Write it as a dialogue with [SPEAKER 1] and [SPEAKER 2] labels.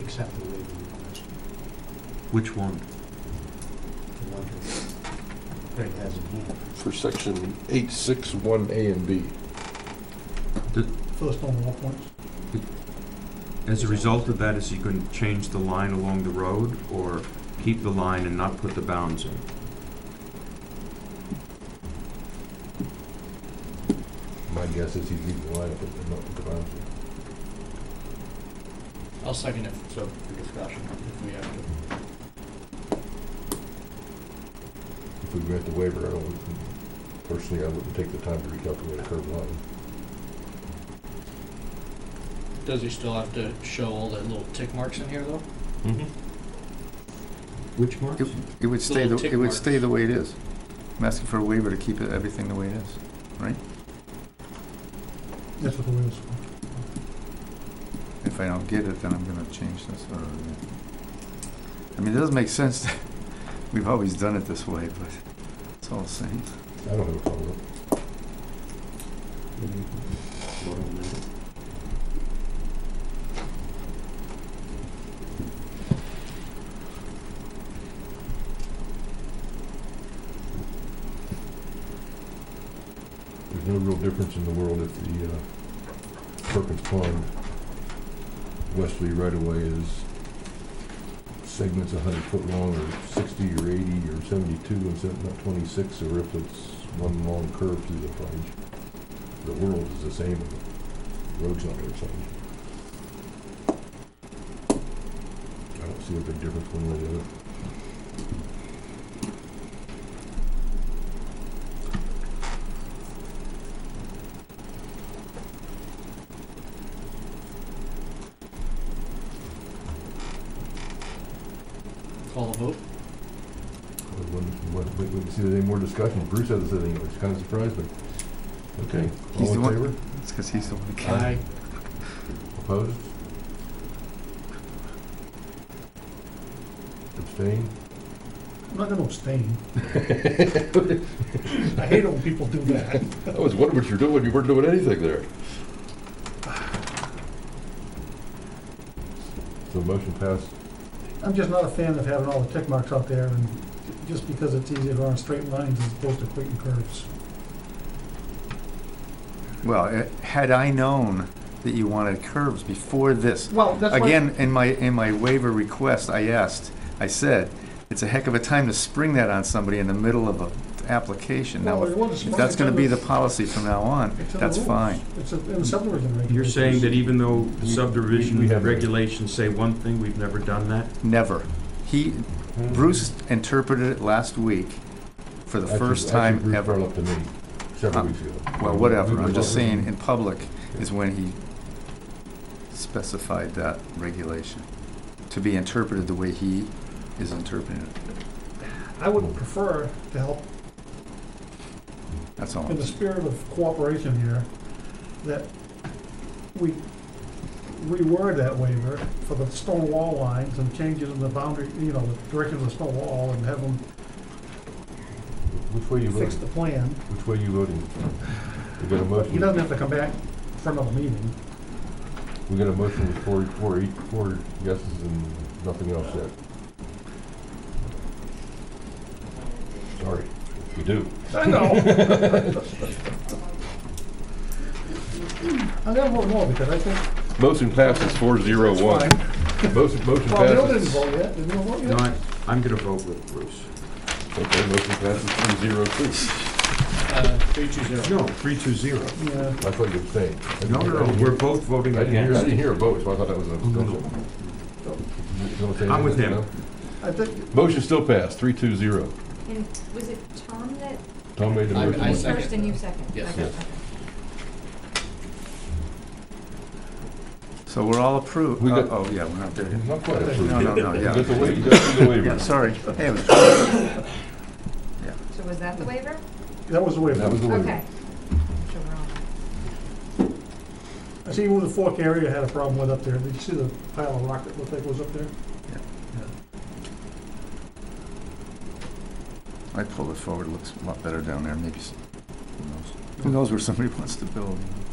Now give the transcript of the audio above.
[SPEAKER 1] accept the waiver request.
[SPEAKER 2] Which one?
[SPEAKER 1] The one that Craig has in hand.
[SPEAKER 3] for section eight, six, one, A and B.
[SPEAKER 1] First on wall points?
[SPEAKER 2] As a result of that, is he going to change the line along the road or keep the line and not put the bounds in?
[SPEAKER 3] My guess is he's leaving the line up at the, up the boundary.
[SPEAKER 4] I'll second it, so for discussion, if we have to.
[SPEAKER 3] If we grant the waiver, I don't, personally, I wouldn't take the time to recalculate a curb line.
[SPEAKER 4] Does he still have to show all the little tick marks in here, though?
[SPEAKER 2] Mm-hmm. Which marks?
[SPEAKER 5] Yep. It would stay,
[SPEAKER 4] Little
[SPEAKER 5] the
[SPEAKER 4] tick
[SPEAKER 5] it would
[SPEAKER 4] marks.
[SPEAKER 5] stay the way it is. I'm asking for a waiver to keep it- everything the way it is.
[SPEAKER 1] That's what the waiver's for.
[SPEAKER 5] If I don't get it, then I'm gonna change this or, I mean, it doesn't make sense that, we've always done it this way, but it's all the same.
[SPEAKER 3] I don't have a problem with it. There's no real difference in the world if the, uh, Perkins Pond Wesley right-of-way is segments a hundred foot long, or sixty, or eighty, or seventy-two, and set- not twenty-six, or if it's one long curve through the frontage. The world is the same, and the road's not gonna change. I don't see a big difference one way or the other.
[SPEAKER 4] Call the vote?
[SPEAKER 3] Wait, wait, wait, wait, see, there's any more discussion, Bruce hasn't said anything, which kinda surprised me. Okay,
[SPEAKER 5] He's the
[SPEAKER 3] all in
[SPEAKER 5] one-
[SPEAKER 3] favor?
[SPEAKER 5] It's because he's the one that can.
[SPEAKER 4] Aye.
[SPEAKER 3] Opposed? Abstained?
[SPEAKER 1] I'm not gonna abstain. I hate it when people do that.
[SPEAKER 3] I was wondering what you're doing, you weren't doing anything there. So motion passed.
[SPEAKER 1] I'm just not a fan of having all the tick marks out there, and just because it's easier to run straight lines as opposed to quick and curves.
[SPEAKER 5] Well, eh, had I known that you wanted curves before this,
[SPEAKER 1] Well, that's
[SPEAKER 5] Again, in my, in my waiver request, I asked, I said, it's a heck of a time to spring that on somebody in the middle of a application. Now, if that's gonna be the policy from now on, that's fine.
[SPEAKER 1] It's in the subdivision regulations.
[SPEAKER 2] You're saying that even though the
[SPEAKER 3] We-
[SPEAKER 2] subdivision
[SPEAKER 3] we have-
[SPEAKER 2] regulations say one thing, we've never done that?
[SPEAKER 5] Never. He, Bruce interpreted it last week for the
[SPEAKER 3] Actually-
[SPEAKER 5] first
[SPEAKER 3] actually,
[SPEAKER 5] time
[SPEAKER 3] Bruce brought
[SPEAKER 5] ever.
[SPEAKER 3] it up to me several
[SPEAKER 5] Uh,
[SPEAKER 3] weeks ago.
[SPEAKER 5] Well, whatever, I'm just
[SPEAKER 3] Well,
[SPEAKER 5] saying, in public is when he specified that regulation to be interpreted the way he is interpreting it.
[SPEAKER 1] I would prefer to help
[SPEAKER 5] That's all.
[SPEAKER 1] in the spirit of cooperation here, that we reword that waiver for the stone wall lines and changes in the boundary, you know, the direction of the stone wall and have them
[SPEAKER 3] Which way you
[SPEAKER 1] fix the
[SPEAKER 3] voting?
[SPEAKER 1] plan.
[SPEAKER 3] Which way you voting? We got a
[SPEAKER 1] He
[SPEAKER 3] motion,
[SPEAKER 1] doesn't have to come back for another meeting.
[SPEAKER 3] we got a motion with four, four, eight, four yeses and nothing else yet. Sorry, we do.
[SPEAKER 1] I know. I got one more because I think
[SPEAKER 3] Motion passes four zero
[SPEAKER 1] it's fine.
[SPEAKER 3] Motion, motion
[SPEAKER 1] Well, Bill didn't
[SPEAKER 3] passes.
[SPEAKER 1] vote yet, did Bill vote
[SPEAKER 2] No,
[SPEAKER 1] yet?
[SPEAKER 2] I, I'm gonna vote with Bruce.
[SPEAKER 3] Okay, motion passes three zero two.
[SPEAKER 4] Uh, three, two, zero.
[SPEAKER 2] No, three two zero.
[SPEAKER 1] Yeah,
[SPEAKER 3] I thought you were saying. I didn't
[SPEAKER 2] No,
[SPEAKER 3] hear-
[SPEAKER 2] no,
[SPEAKER 3] I
[SPEAKER 2] no,
[SPEAKER 3] didn't
[SPEAKER 2] we're
[SPEAKER 3] hear-
[SPEAKER 2] both voting
[SPEAKER 3] I didn't hear, I didn't
[SPEAKER 2] against.
[SPEAKER 3] hear a vote, so I thought that was a
[SPEAKER 2] no, no.
[SPEAKER 3] discussion. You don't say
[SPEAKER 2] I'm with
[SPEAKER 3] anything,
[SPEAKER 2] him.
[SPEAKER 1] I think,
[SPEAKER 3] no? Motion still passed, three two zero.
[SPEAKER 6] And was it Tom that,
[SPEAKER 3] Tom made the
[SPEAKER 4] I-
[SPEAKER 3] motion.
[SPEAKER 4] I
[SPEAKER 6] you
[SPEAKER 4] second.
[SPEAKER 6] first and you second?
[SPEAKER 4] Yes.
[SPEAKER 6] Okay,
[SPEAKER 3] Yes.
[SPEAKER 6] okay.
[SPEAKER 5] So we're all approved.
[SPEAKER 3] We
[SPEAKER 5] Oh,
[SPEAKER 3] got-
[SPEAKER 5] oh, yeah, we're not there yet.
[SPEAKER 3] Not quite approved.
[SPEAKER 5] No, no, no,
[SPEAKER 3] You
[SPEAKER 5] yeah.
[SPEAKER 3] got the wa- you got the waiver.
[SPEAKER 5] Yeah, sorry. Hey, it was-
[SPEAKER 6] So was that the waiver?
[SPEAKER 1] that was the way.
[SPEAKER 3] That was the
[SPEAKER 6] Okay.
[SPEAKER 3] waiver.
[SPEAKER 6] So we're on.
[SPEAKER 1] I see even the fork area had a problem with up there. Did you see the pile of rock that looked like it was up there?
[SPEAKER 5] I pulled it forward, it looks a lot better down there, maybe, s- who knows? Who knows where somebody wants to build? you know?